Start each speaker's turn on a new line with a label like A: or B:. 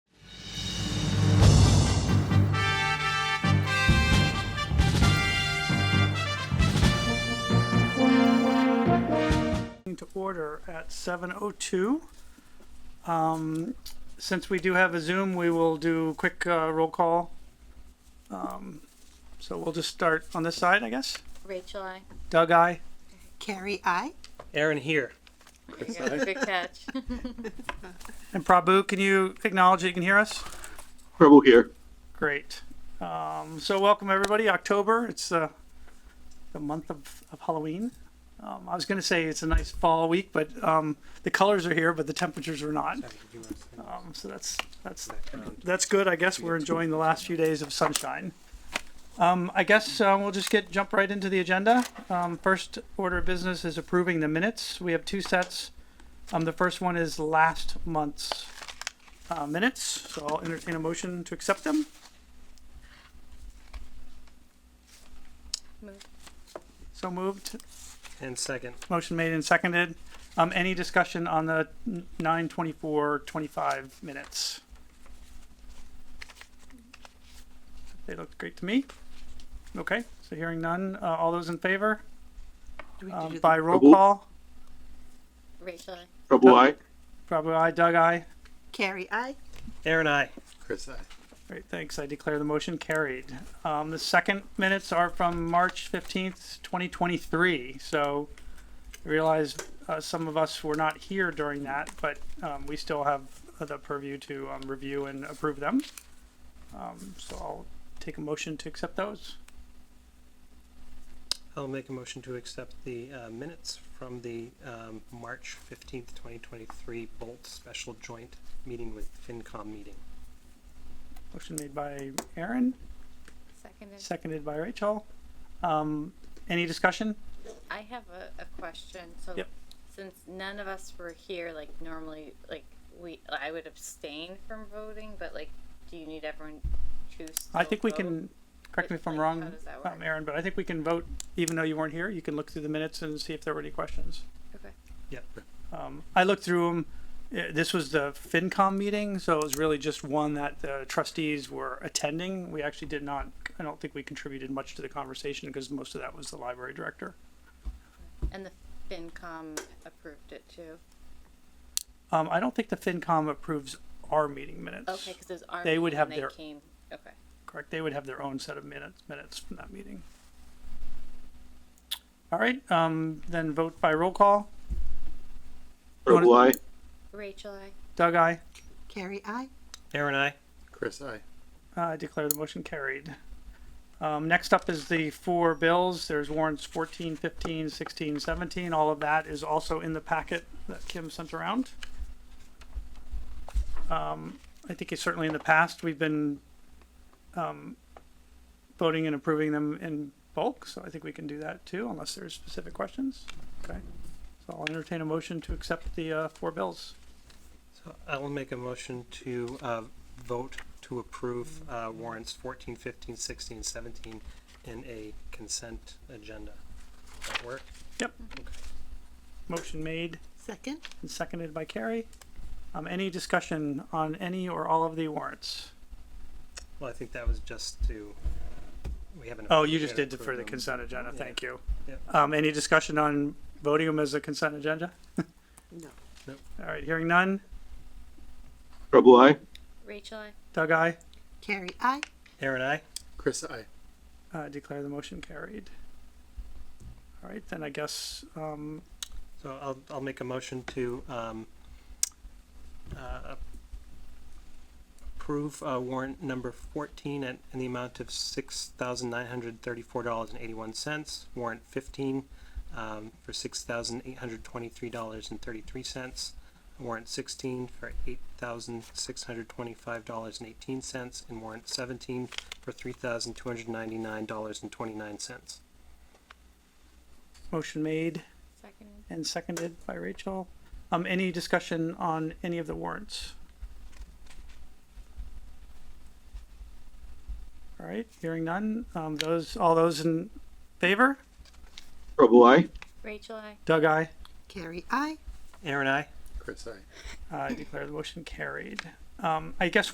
A: order at 7:02. Um, Since we do have a Zoom, we will do quick uh, roll call. Um, So we'll just start on this side, I guess.
B: Rachel, I.
A: Doug, I.
C: Carrie, I.
D: Aaron here.
B: Good catch.
A: And Prabhu, can you acknowledge that you can hear us?
E: Preble here.
A: Great. Um, so welcome everybody. October. It's uh, the month of, of Halloween. Um, I was going to say it's a nice fall week, but um, the colors are here, but the temperatures are not. Um, so that's that's that's good. I guess we're enjoying the last few days of sunshine. Um, I guess uh, we'll just get jump right into the agenda. Um, first order of business is approving the minutes. We have two sets. Um, the first one is last month's uh, minutes, so I'll entertain a motion to accept them.
B: Move.
A: So moved.
D: And second.
A: Motion made and seconded. Um, any discussion on the nine twenty-four, twenty-five minutes? They looked great to me. Okay, so hearing none, uh, all those in favor,
C: Do we
A: um,
C: do
A: by
C: the-
A: roll
E: Prabhu?
A: call?
B: Rachel, I.
E: Preble I.
A: Probably I, Doug, I.
C: Carrie, I.
D: Aaron I.
E: Chris I.
A: Great, thanks. I declare the motion carried. Um, the second minutes are from March fifteenth, twenty twenty-three, so I realize, uh, some of us were not here during that, but, um, we still have the purview to, um, review and approve them. Um, so I'll take a motion to accept those.
D: I'll make a motion to accept the uh, minutes from the um, March 15th, 2023 Bolt Special Joint Meeting with FinCom meeting.
A: Motion made by Aaron,
B: Seconded.
A: seconded by Rachel. Um, any discussion?
B: I have a, a question. So,
A: Yep.
B: since none of us were here, like normally, like we, I would abstain from voting, but like, do you need everyone to?
A: I
B: still
A: think we
B: vote?
A: can, correct me if I'm
B: Like,
A: wrong,
B: how does that
A: um,
B: work?
A: Aaron, but I think we can vote, even though you weren't here, you can look through the minutes and see if there were any questions.
B: Okay.
D: Yep.
A: Um, I looked through them, this was the FinCom meeting, so it was really just one that the trustees were attending. We actually did not, I don't think we contributed much to the conversation, because most of that was the library director.
B: And the FinCom approved it too.
A: Um, I don't think the FinCom approves our meeting minutes.
B: Okay, because it was our.
A: They would
B: meeting
A: have
B: and
A: their-
B: They came. Okay.
A: Correct. They would have their own set of minutes, minutes from that meeting. All right, um, then vote by roll call.
E: Preble I.
B: Rachel, I.
A: Doug, I
C: Carrie, I.
D: Aaron I.
E: Chris I.
A: uh, declare the motion carried. Um, next up is the four bills. There's warrants 14, 15, 16, 17. All of that is also in the packet that Kim sent around. Um, I think it's certainly in the past, we've been, um, voting and approving them in bulk, so I think we can do that too, unless there's specific questions. Okay. So I'll entertain a motion to accept the, uh, four bills.
D: So I will make a motion to uh, vote to approve uh, warrants 14, 15, 16, 17 in a consent agenda. Does that work?
A: Yep. Motion made.
C: Second.
A: and seconded by Carrie. Um, any discussion on any or all of the warrants?
D: Well, I think that was just to, we haven't.
A: Oh, you just
D: we
A: did
D: haven't
A: the- for the
D: approved them.
A: consent agenda,
D: Yeah.
A: thank you.
D: Yeah.
A: Um, any discussion on voting them as a consent agenda?
C: No.
D: Nope.
A: All right, hearing none.
E: Preble I.
B: Rachel, I.
A: Doug, I
C: Carrie, I.
D: Aaron I.
E: Chris I.
A: uh, declare the motion carried. All right, then I guess, um,
D: So I'll, I'll make a motion to, um, uh, approve, uh, warrant number fourteen at, in the amount of six thousand nine hundred thirty-four dollars and eighty-one cents. Warrant fifteen, um, for six thousand eight hundred twenty-three dollars and thirty-three cents. Warrant sixteen for eight thousand six hundred twenty-five dollars and eighteen cents. And warrant seventeen for three thousand two hundred ninety-nine dollars and twenty-nine cents.
A: motion made
B: Seconded.
A: and seconded by Rachel. Um, any discussion on any of the warrants? All right, hearing none. Um, those, all those in favor?
E: Preble I.
B: Rachel, I.
A: Doug, I
C: Carrie, I.
D: Aaron, I?
E: Chris I.
A: Uh, declare the motion carried. Um, I guess